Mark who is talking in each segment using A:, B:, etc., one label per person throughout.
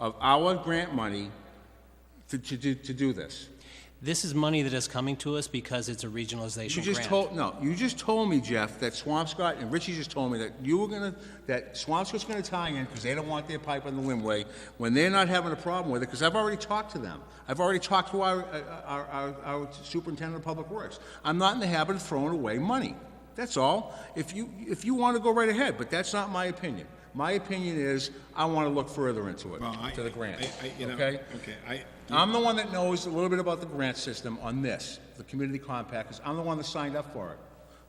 A: of our grant money to, to, do- to do this.
B: This is money that is coming to us because it's a regionalization
A: You
B: grant.
A: just told, no, you just told me, Jeff, that Swampscott, and Richie just told me that you were gonna, that Swampscott's gonna tie in because they don't want their pipe on the Limway when they're not having a problem with it, because I've already talked to them. I've already talked to our, uh, our, our- our superintendent of public works. I'm not in the habit of throwing away money. That's all. If you, if you want to go right ahead, but that's not my opinion. My opinion is, I want to look further into it,
C: Well, I-
A: to the grant,
C: I- I- you know,
A: okay?
C: Okay, I,
A: I'm the one that knows a little bit about the grant system on this, the community compact, 'cause I'm the one that signed up for it,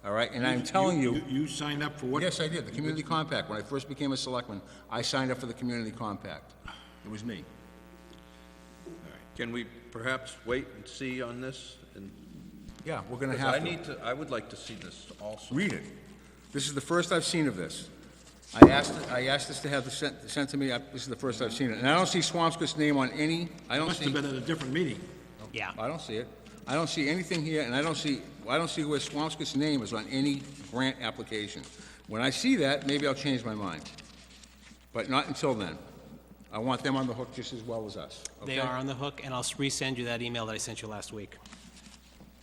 A: all right? And I'm telling you,
C: You signed up for what?
A: yes, I did, the community compact. When I first became a selectman, I signed up for the community compact. It was me.
D: Can we perhaps wait and see on this? And-
A: Yeah, we're gonna
D: Because I
A: have to.
D: need to, I would like to see this also.
A: Read it. This is the first I've seen of this. I asked, I asked this to have this sent, sent to me, I- this is the first I've seen it. And I don't see Swampscott's name on any, I don't
C: Must
A: see,
C: have been at a different meeting.
B: Yeah.
A: I don't see it. I don't see anything here, and I don't see, I don't see where Swampscott's name is on any grant application. When I see that, maybe I'll change my mind. But not until then. I want them on the hook just as well as us, okay?
B: They are on the hook, and I'll s- resend you that email that I sent you last week.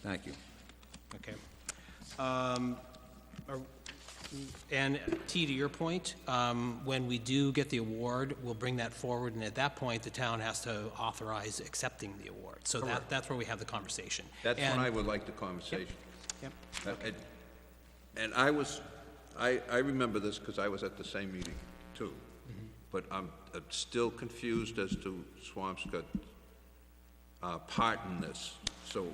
A: Thank you.
B: Okay. Um, are- And T, to your point, um, when we do get the award, we'll bring that forward, and at that point, the town has to authorize accepting the award. So that, that's where we have the conversation.
D: That's when
B: And-
D: I would like the conversation.
B: Yep.
D: Uh, And and I was, I, I remember this because I was at the same meeting too.
B: Mm-hmm.
D: But I'm uh, still confused as to Swampscott uh, part in this. So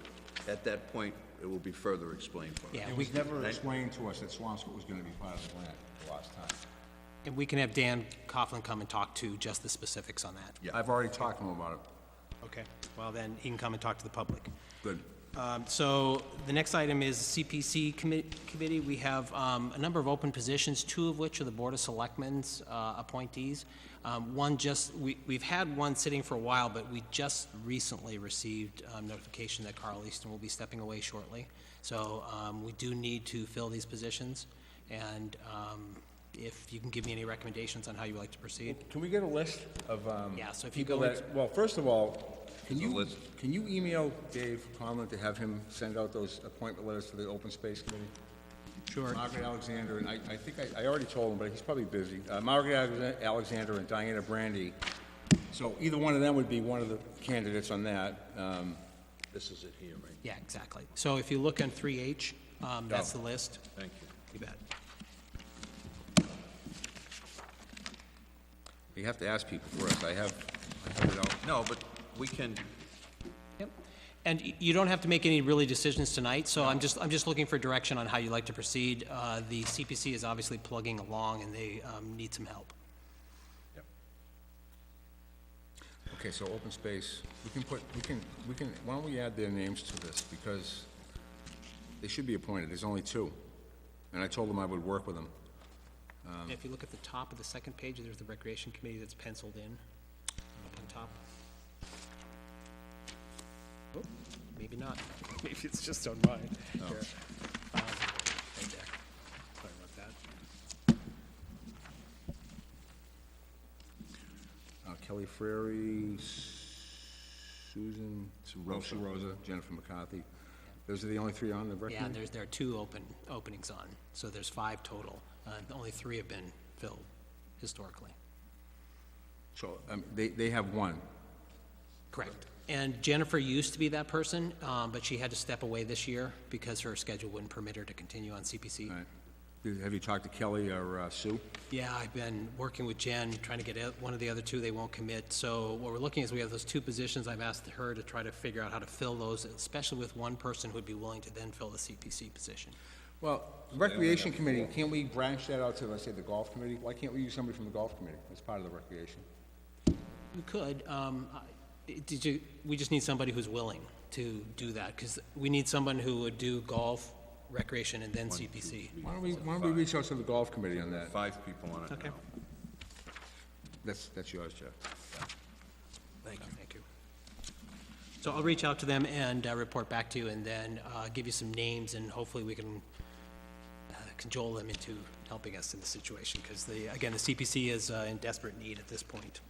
D: at that point, it will be further explained for us.
B: Yeah,
A: It
B: we,
A: was never explained to us that Swampscott was gonna be part of the grant the last time.
B: and we can have Dan Coughlin come and talk to just the specifics on that.
D: Yeah.
A: I've already talked to him about it.
B: Okay, well then, he can come and talk to the public.
A: Good.
B: Um, So the next item is CPC commi- Committee. We have um, a number of open positions, two of which are the Board of Selectmen's uh, appointees. Um, One just, we- we've had one sitting for a while, but we just recently received um, notification that Carl Easton will be stepping away shortly. So um, we do need to fill these positions, and um, if you can give me any recommendations on how you would like to proceed.
A: Can we get a list of, um...
B: Yeah, so if you
A: people
B: go
A: that- Well, first of all, can
D: Here's a
A: you,
D: list.
A: can you email Dave Conlon to have him send out those appointment letters to the Open Space Committee?
B: Sure.
A: Margaret Alexander, and I, I think I, I already told him, but he's probably busy. Uh, Margaret Alexa- Alexander and Diana Brandy. So either one of them would be one of the candidates on that. Um,
D: This is it here, right?
B: Yeah, exactly. So if you look on 3H, um, that's
A: Oh,
B: the list.
D: Thank you.
B: You bet.
A: you have to ask people for us. I have, I have it out.
D: No, but we can,
B: Yep. And y- you don't have to make any really decisions tonight, so I'm just, I'm just looking for direction on how you'd like to proceed. Uh, The CPC is obviously plugging along, and they um, need some help.
A: Okay, so open space, we can put, we can, we can, why don't we add their names to this, because they should be appointed, there's only two. And I told them I would work with them.
B: If you look at the top of the second page, there's the Recreation Committee that's penciled in, up on top. Oh, Maybe not. Maybe it's just on mine. Here. Um, right there. Sorry about that.
A: Uh, Kelly Frary, Susan. Rosa. Rosa, Jennifer McCarthy. Those are the only three on the record?
B: Yeah, and there's, there are two open, openings on, so there's five total. Uh, Only three have been filled historically.
A: So, um, they, they have one.
B: Correct. And Jennifer used to be that person, um, but she had to step away this year because her schedule wouldn't permit her to continue on CPC.
A: All right. Did- Uh, Have you talked to Kelly or uh, Sue?
B: Yeah, I've been working with Jen, trying to get out- one of the other two, they won't commit. So what we're looking is, we have those two positions, I've asked her to try to figure out how to fill those, especially with one person who'd be willing to then fill the CPC position.
A: Well, Recreation Committee, can't we branch that out to, let's say, the Golf Committee? Why can't we use somebody from the Golf Committee as part of the Recreation?
B: We could, um, I- did you, we just need somebody who's willing to do that, because we need someone who would do golf, recreation, and then CPC.
A: Why don't we, why don't we reach out to the golf committee on that?
D: five people on it
B: Okay.
D: now.
A: That's, that's yours, Jeff.
B: Thank you. Thank you. So I'll reach out to them and uh, report back to you, and then uh, give you some names, and hopefully we can uh, cajole them into helping us in the situation, because the, again, the CPC is uh, in desperate need at this point.